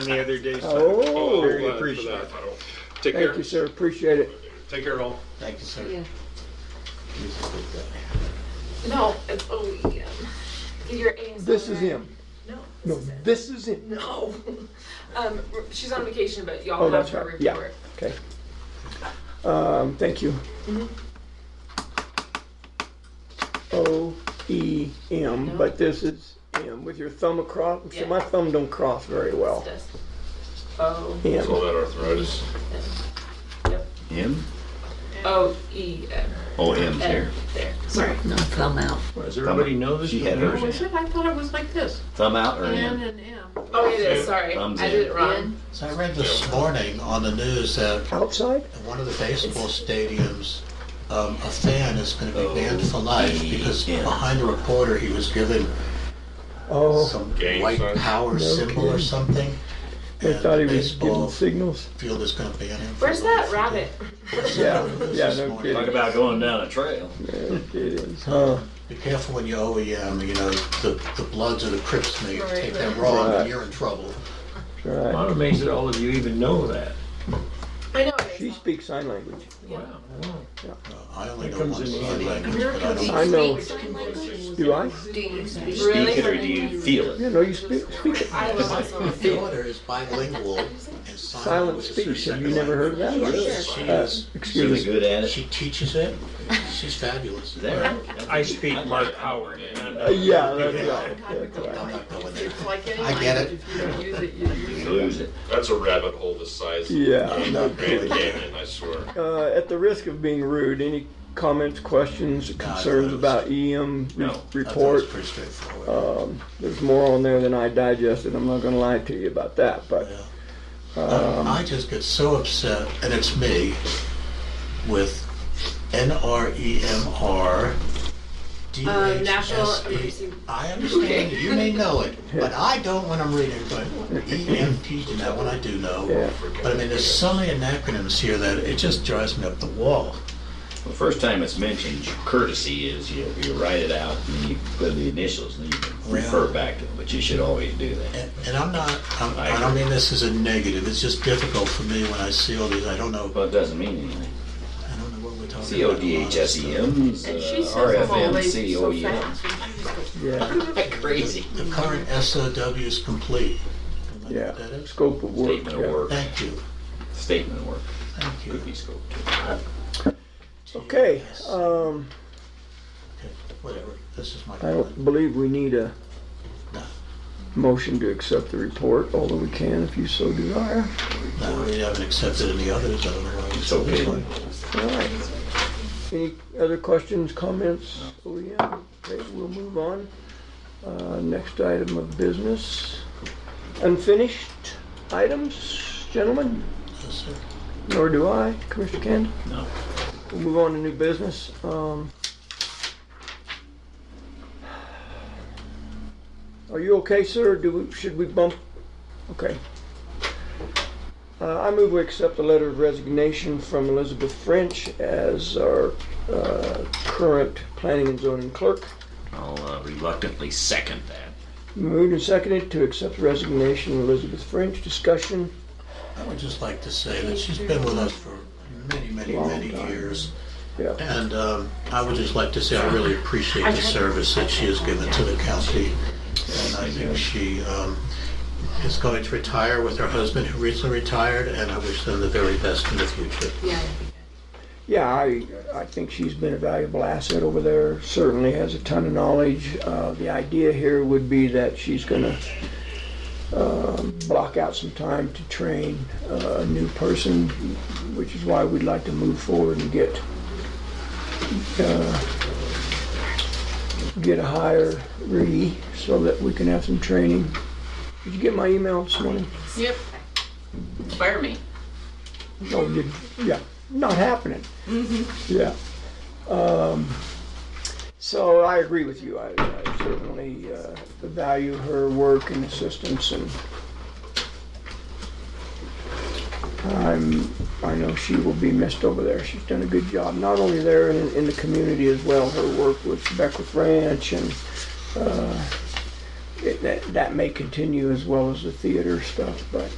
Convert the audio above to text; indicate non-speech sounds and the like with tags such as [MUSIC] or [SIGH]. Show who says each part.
Speaker 1: in the other day. so
Speaker 2: Oh,
Speaker 1: Very
Speaker 2: thank
Speaker 1: appreciative.
Speaker 2: you,
Speaker 3: Take care.
Speaker 2: sir. Appreciate it.
Speaker 3: Take care, all.
Speaker 4: Thank you, sir.
Speaker 5: Yeah.
Speaker 4: Jesus, take that.
Speaker 5: No, it's OEM. Your aim's
Speaker 2: This
Speaker 5: not
Speaker 2: is
Speaker 5: right.
Speaker 2: him.
Speaker 5: No,
Speaker 2: No,
Speaker 5: this is
Speaker 2: this is him.
Speaker 5: it. No. [LAUGHS] Um, r- she's on vacation, but y'all
Speaker 2: Oh,
Speaker 5: have
Speaker 2: that's
Speaker 5: her
Speaker 2: right. Yeah.
Speaker 5: report.
Speaker 2: Okay. Um, thank you. O E M,
Speaker 5: No.
Speaker 2: but this is M with your thumb across. See,
Speaker 5: Yeah.
Speaker 2: my thumb don't cross very well.
Speaker 5: This. O,
Speaker 2: M.
Speaker 3: All that arthritis.
Speaker 4: M?
Speaker 5: O, E, M.
Speaker 4: Oh, M's
Speaker 5: There,
Speaker 4: here.
Speaker 5: there. Sorry.
Speaker 6: No, thumb out.
Speaker 3: Does everybody know this?
Speaker 4: She had hers.
Speaker 7: Was it? I thought it was like this.
Speaker 4: Thumb out or
Speaker 7: N
Speaker 4: in?
Speaker 7: and M.
Speaker 5: Oh, it is, sorry.
Speaker 4: Thumbs
Speaker 5: I did
Speaker 4: in.
Speaker 5: it wrong.
Speaker 6: So I read this morning on the news that
Speaker 2: Outside?
Speaker 6: in one of the baseball stadiums, um, a fan is going to be banned
Speaker 5: Oh,
Speaker 6: for life because
Speaker 4: Yeah.
Speaker 6: behind a reporter, he was given
Speaker 2: Oh,
Speaker 6: some
Speaker 3: Gang
Speaker 6: white
Speaker 3: sign.
Speaker 6: power symbol or
Speaker 2: kidding.
Speaker 6: something.
Speaker 2: they
Speaker 6: and
Speaker 2: thought he
Speaker 6: the
Speaker 2: was giving
Speaker 6: baseball
Speaker 2: signals.
Speaker 6: field is going to ban him. for
Speaker 5: Where's
Speaker 6: life.
Speaker 5: that rabbit?
Speaker 2: [LAUGHS] Yeah, yeah,
Speaker 6: This
Speaker 2: no
Speaker 6: morning.
Speaker 2: kidding.
Speaker 4: about going down a trail.
Speaker 2: Yeah, it is. Huh.
Speaker 6: Be careful when you OEM, you know, the, the Bloods or the Crips may
Speaker 5: Right,
Speaker 6: take that
Speaker 5: right.
Speaker 6: wrong
Speaker 2: Right.
Speaker 6: and you're in trouble.
Speaker 2: Right.
Speaker 3: I'm amazed that all of you even know that.
Speaker 5: I know it
Speaker 2: She
Speaker 5: is.
Speaker 2: speaks sign language.
Speaker 3: Wow.
Speaker 6: Uh, I only
Speaker 3: It
Speaker 6: know
Speaker 3: comes
Speaker 6: one
Speaker 3: in
Speaker 6: sign
Speaker 3: handy.
Speaker 6: language, but I don't.
Speaker 2: I know.
Speaker 7: Sign language.
Speaker 2: Do I?
Speaker 5: Really?
Speaker 4: Speak it or do you feel it?
Speaker 2: Yeah, no, you speak, speak it.
Speaker 5: I love this
Speaker 6: My
Speaker 5: one.
Speaker 6: daughter is bilingual and silent
Speaker 2: Silent
Speaker 6: was her
Speaker 2: speech. Have you
Speaker 6: second
Speaker 2: never heard
Speaker 6: language.
Speaker 2: of that?
Speaker 6: She
Speaker 2: Uh,
Speaker 6: is,
Speaker 4: Really
Speaker 2: excuse me.
Speaker 4: good at it.
Speaker 6: she teaches it, she's fabulous.
Speaker 4: Is that right?
Speaker 3: I speak Mark Howard.
Speaker 2: Uh, Yeah, that's right. That's
Speaker 6: I'm
Speaker 2: right.
Speaker 6: not going there.
Speaker 7: It's like any
Speaker 6: I get it.
Speaker 7: language, if you don't use it, you lose
Speaker 4: You
Speaker 7: it.
Speaker 4: lose it.
Speaker 3: That's a rabbit hole the size
Speaker 2: Yeah, no kidding.
Speaker 3: Canyon, I swear.
Speaker 2: Uh, at the risk of being rude, any comments, questions, concerns about EM re-
Speaker 4: No, I thought
Speaker 6: I thought it
Speaker 2: report?
Speaker 6: was pretty straightforward.
Speaker 2: Um, there's more on there than I digested. I'm not going to lie to you about that, but
Speaker 6: Yeah. Um, I just get so upset, and it's me, with E NREMR.
Speaker 5: Um, National
Speaker 6: DHSE.
Speaker 5: Emergency-
Speaker 6: I understand, you may know it, but I don't when I'm reading, but E EMT, and that one I do know.
Speaker 2: yeah.
Speaker 6: But I mean, there's so many acronyms here that it just drives me up the wall.
Speaker 4: The first time it's mentioned, courtesy is you, you write it out and then you put the initials and you can refer back to it, but you should always do that.
Speaker 6: And, and I'm not, I'm, I don't mean this as a negative, it's just difficult for me when I see all these, I don't know,
Speaker 4: Well, it doesn't mean anything.
Speaker 6: I don't know what we're talking about.
Speaker 4: C O D H S E M's,
Speaker 7: And she
Speaker 4: uh,
Speaker 7: says
Speaker 4: R
Speaker 7: them
Speaker 4: F
Speaker 7: all
Speaker 4: M
Speaker 7: like
Speaker 4: C O
Speaker 7: so
Speaker 4: E M.
Speaker 7: fast. and she just goes,
Speaker 2: yeah,
Speaker 4: Crazy.
Speaker 6: The current SOW is complete. Am I
Speaker 2: yeah.
Speaker 6: good at it?
Speaker 2: Scope of work.
Speaker 4: Statement of
Speaker 2: yeah.
Speaker 4: work,
Speaker 6: Thank you,
Speaker 4: statement of work,
Speaker 6: thank you.
Speaker 4: could be scoped.
Speaker 2: Okay.
Speaker 6: Yes.
Speaker 2: Um,
Speaker 6: Okay, Whatever, this is my
Speaker 2: I
Speaker 6: comment.
Speaker 2: don't believe we need a
Speaker 6: No.
Speaker 2: motion to accept the report, although we can if you so desire.
Speaker 6: No, we haven't accepted any others, I don't know why we
Speaker 4: So
Speaker 6: said this
Speaker 4: good.
Speaker 6: one.
Speaker 2: All right. Any other questions, comments? Oh, yeah. Okay, we'll move on. Uh, Next item of business. Unfinished items, gentlemen,
Speaker 6: Yes, sir.
Speaker 2: nor do I, Commissioner Candace.
Speaker 4: No.
Speaker 2: We'll move on to new business. Um, Are you okay, sir? or Do we, should we bump? Okay. Uh, I move we accept the letter of resignation from Elizabeth French as our uh, current planning and zoning clerk.
Speaker 4: I'll uh, reluctantly second that.
Speaker 2: Moved and seconded to accept resignation of Elizabeth French. Discussion.
Speaker 6: I would just like to say that she's been with us for many, many,
Speaker 2: Long
Speaker 6: many
Speaker 2: time.
Speaker 6: years.
Speaker 2: Yeah.
Speaker 6: And um, I would just like to say I really appreciate the service that she has given to the county. And I think she um, is going to retire with her husband who recently retired, and I wish them the very best in the future.
Speaker 5: Yeah.
Speaker 2: Yeah, I, I think she's been a valuable asset over there, certainly has a ton of knowledge. Uh, the idea here would be that she's gonna, um, block out some time to train uh, a new person, which is why we'd like to move forward and get, uh, get a hire re, so that we can have some training. Did you get my email this morning?
Speaker 7: Yep. Fire me.
Speaker 2: Oh, you, yeah, not happening. Yeah. Um, So I agree with you. I I certainly uh, value her work and assistance and I'm, I know she will be missed over there. She's done a good job, not only there in, in the community as well. Her work with Beckwith Ranch and uh, it- that, that may continue as well as the theater stuff, but